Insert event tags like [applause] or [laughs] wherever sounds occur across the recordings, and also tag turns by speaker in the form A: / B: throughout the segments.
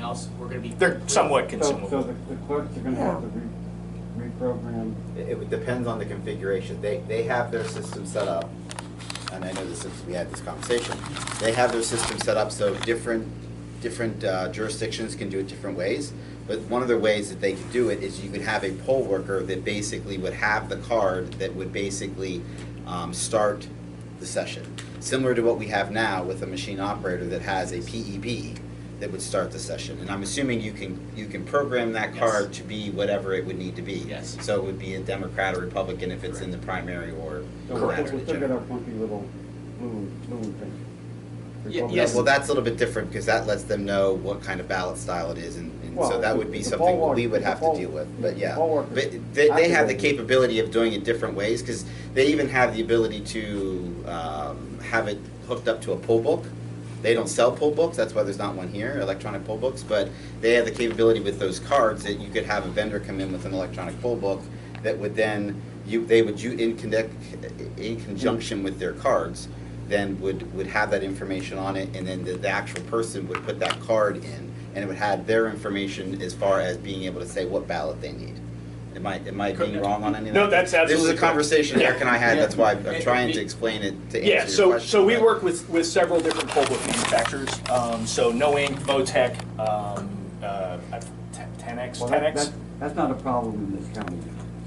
A: else, we're gonna be.
B: They're somewhat
C: So, so the
B: consumable.
C: the clerks are gonna have to re- reprogram.
D: It it depends on the configuration. They, they have their system set up, and I know this since we had this conversation. They have their system set up so different, different uh, jurisdictions can do it different ways. But one of the ways that they could do it is you could have a poll worker that basically would have the card that would basically um, start the session. Similar to what we have now with a machine operator that has a PEB that would start the session. And I'm assuming you can, you can program that
A: Yes.
D: card to be whatever it would need to be.
A: Yes.
D: So it would be a Democrat or Republican if it's in the primary or.
C: so we'll-
B: Correct.
C: We'll still get our funky little blue, blue thing.
A: Ye-
C: Republican-
A: yes.
D: Well, that's a little bit different because that lets them know what kind of ballot style it is and, and so
C: Well,
D: that
C: the-
D: would be
C: the
D: something
C: poll
D: we
C: work-
D: would
C: the
D: have to
C: poll-
D: deal with, but
C: the
D: yeah.
C: poll workers
D: But they, they have the
C: activate it.
D: capability of doing it different ways because they even have the ability to, um, have it hooked up to a poll book. They don't sell poll books, that's why there's not one here, electronic poll books, but they have the capability with those cards that you could have a vendor come in with an electronic poll book that would then, you, they would, you, in connect, in conjunction with their cards, then would, would have that information on it, and then the, the actual person would put that card in, and it would have their information as far as being able to say what ballot they need. Am I, am I being wrong on any of that?
B: No, that's absolutely
D: This is a
B: correct.
D: conversation Eric and I had, that's why
B: Yeah.
D: I'm trying to explain it to answer your
B: Yeah, so,
D: question,
B: so we
D: but-
B: work with, with several different poll book manufacturers. Um, so No Ink, Votech, um, uh, Ten X,
C: Well,
B: Ten
C: that-
B: X.
C: that- That's not a problem in this county.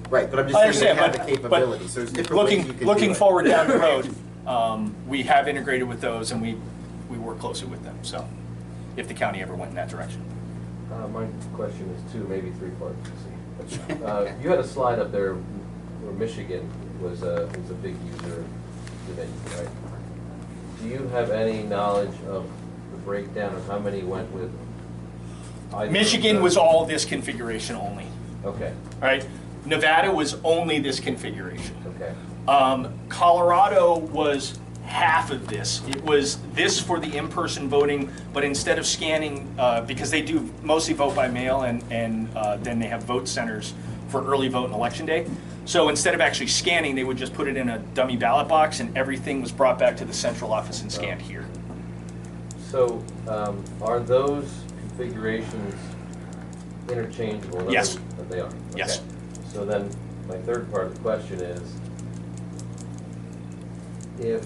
D: Right, but I'm
B: I
D: just
B: understand,
D: saying we have the
B: but-
D: capability, so there's different ways you
B: Looking,
D: could do
B: looking
D: it.
B: forward down
D: [laughs]
B: the road, um, we have integrated with those and we, we work closely with them, so, if the county ever went in that direction.
E: Uh, my question is two, maybe three parts. Uh, you had a slide up there where Michigan was a, was a big user of divinity, right? Do you have any knowledge of the breakdown of how many went with? either of
B: Michigan was
E: those?
B: all this configuration only,
E: Okay,
B: right? Nevada was only this configuration.
E: okay.
B: Um, Colorado was half of this. It was this for the in-person voting, but instead of scanning, uh, because they do mostly vote by mail and, and uh, then they have vote centers for early vote and election day. So instead of actually scanning, they would just put it in a dummy ballot box and everything was brought back to the central office and scanned
E: Oh.
B: here.
E: So, um, are those configurations interchangeable? In other
B: Yes.
E: words, They are?
B: Yes.
E: Okay. So then, my third part of the question is, if,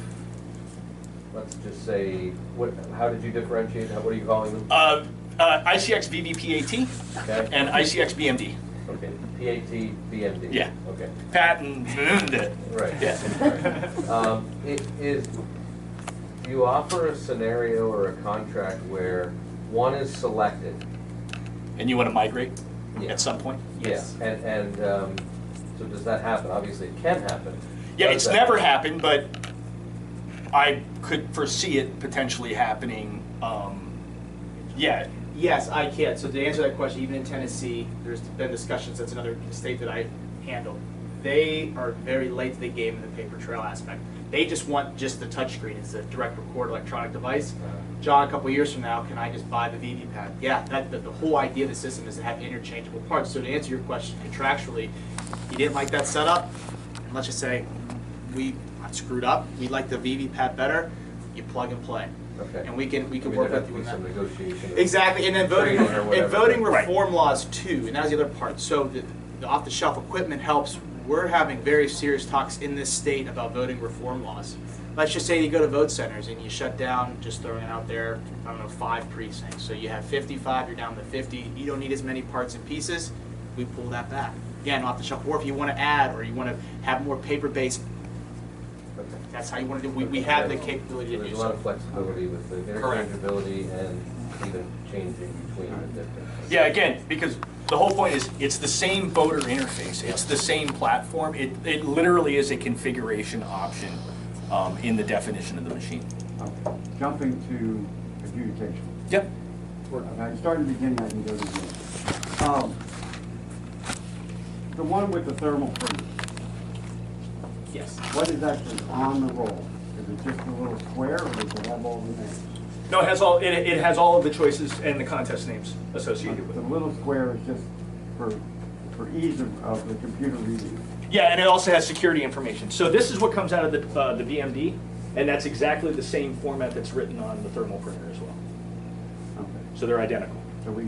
E: let's just say, what, how did you differentiate, How- what are you calling them?
B: Uh, uh, ICX VVPAT
E: Okay,
B: and ICX BMD.
E: okay, PAT, BMD?
B: Yeah.
E: Okay,
B: Pat and
E: right.
B: Yeah.
E: [laughs] Um, it is, do you offer a scenario or a contract where one is selected?
B: And you want to migrate
E: Yeah.
B: at some point?
E: Yeah, and, and, um, so does that happen? Obviously, it can happen.
B: Yeah,
E: Does
B: it's
E: that-
B: never happened, but I could foresee it potentially happening. Um, yeah,
A: Yes, I can. So to answer that question, even in Tennessee, there's been discussions, that's another state that I handle. They are very late to the game in the paper trail aspect. They just want just the touchscreen as a direct record electronic device. John, a couple years from now, can I just buy the VV pad? Yeah, that, the, the whole idea of the system is to have interchangeable parts. So to answer your question contractually, you didn't like that setup, and let's just say, we screwed up, we like the VV pad better, you plug and play.
E: Okay.
A: And we can, we
E: I
A: can
E: mean,
A: work
E: there'd
A: with
E: have
A: you
E: to be
A: on that.
E: some negotiation. of-
A: Exactly, and then voting,
E: Training or
A: and
E: whatever.
A: voting
B: Right.
A: reform laws too, and that was the other part. So the, the off-the-shelf equipment helps. We're having very serious talks in this state about voting reform laws. Let's just say you go to vote centers and you shut down, just throwing it out there, I don't know, five precincts. So you have fifty-five, you're down to fifty, you don't need as many parts and pieces, we pull that back. Again, off the shelf, or if you wanna add, or you wanna have more paper-based,
E: Okay.
A: that's how you wanna do, we, we have the capability to
E: So
A: do
E: There's a lot
A: so.
E: of flexibility with the
B: Correct.
E: interchangeability and even changing between the different.
B: yeah. Again, because the whole point is it's the same voter interface. It's the same platform. It it literally is a configuration option um, in the definition of the machine.
C: Okay. Uh, Jumping to adjudication.
B: Yep.
C: Okay, starting beginning, I can go to the end. Um, The one with the thermal printer,
A: Yes.
C: what is actually on the roll? Is it just a little square or does it have all the names?
B: No, it has all it, it has all of the choices and the contest names associated with
C: The
B: it.
C: little square is just for, for ease of, of the computer reading.
B: Yeah, and it also has security information. So this is what comes out of the uh, the BMD, and that's exactly the same format that's written on the thermal printer as well.
C: Okay.
B: So they're identical.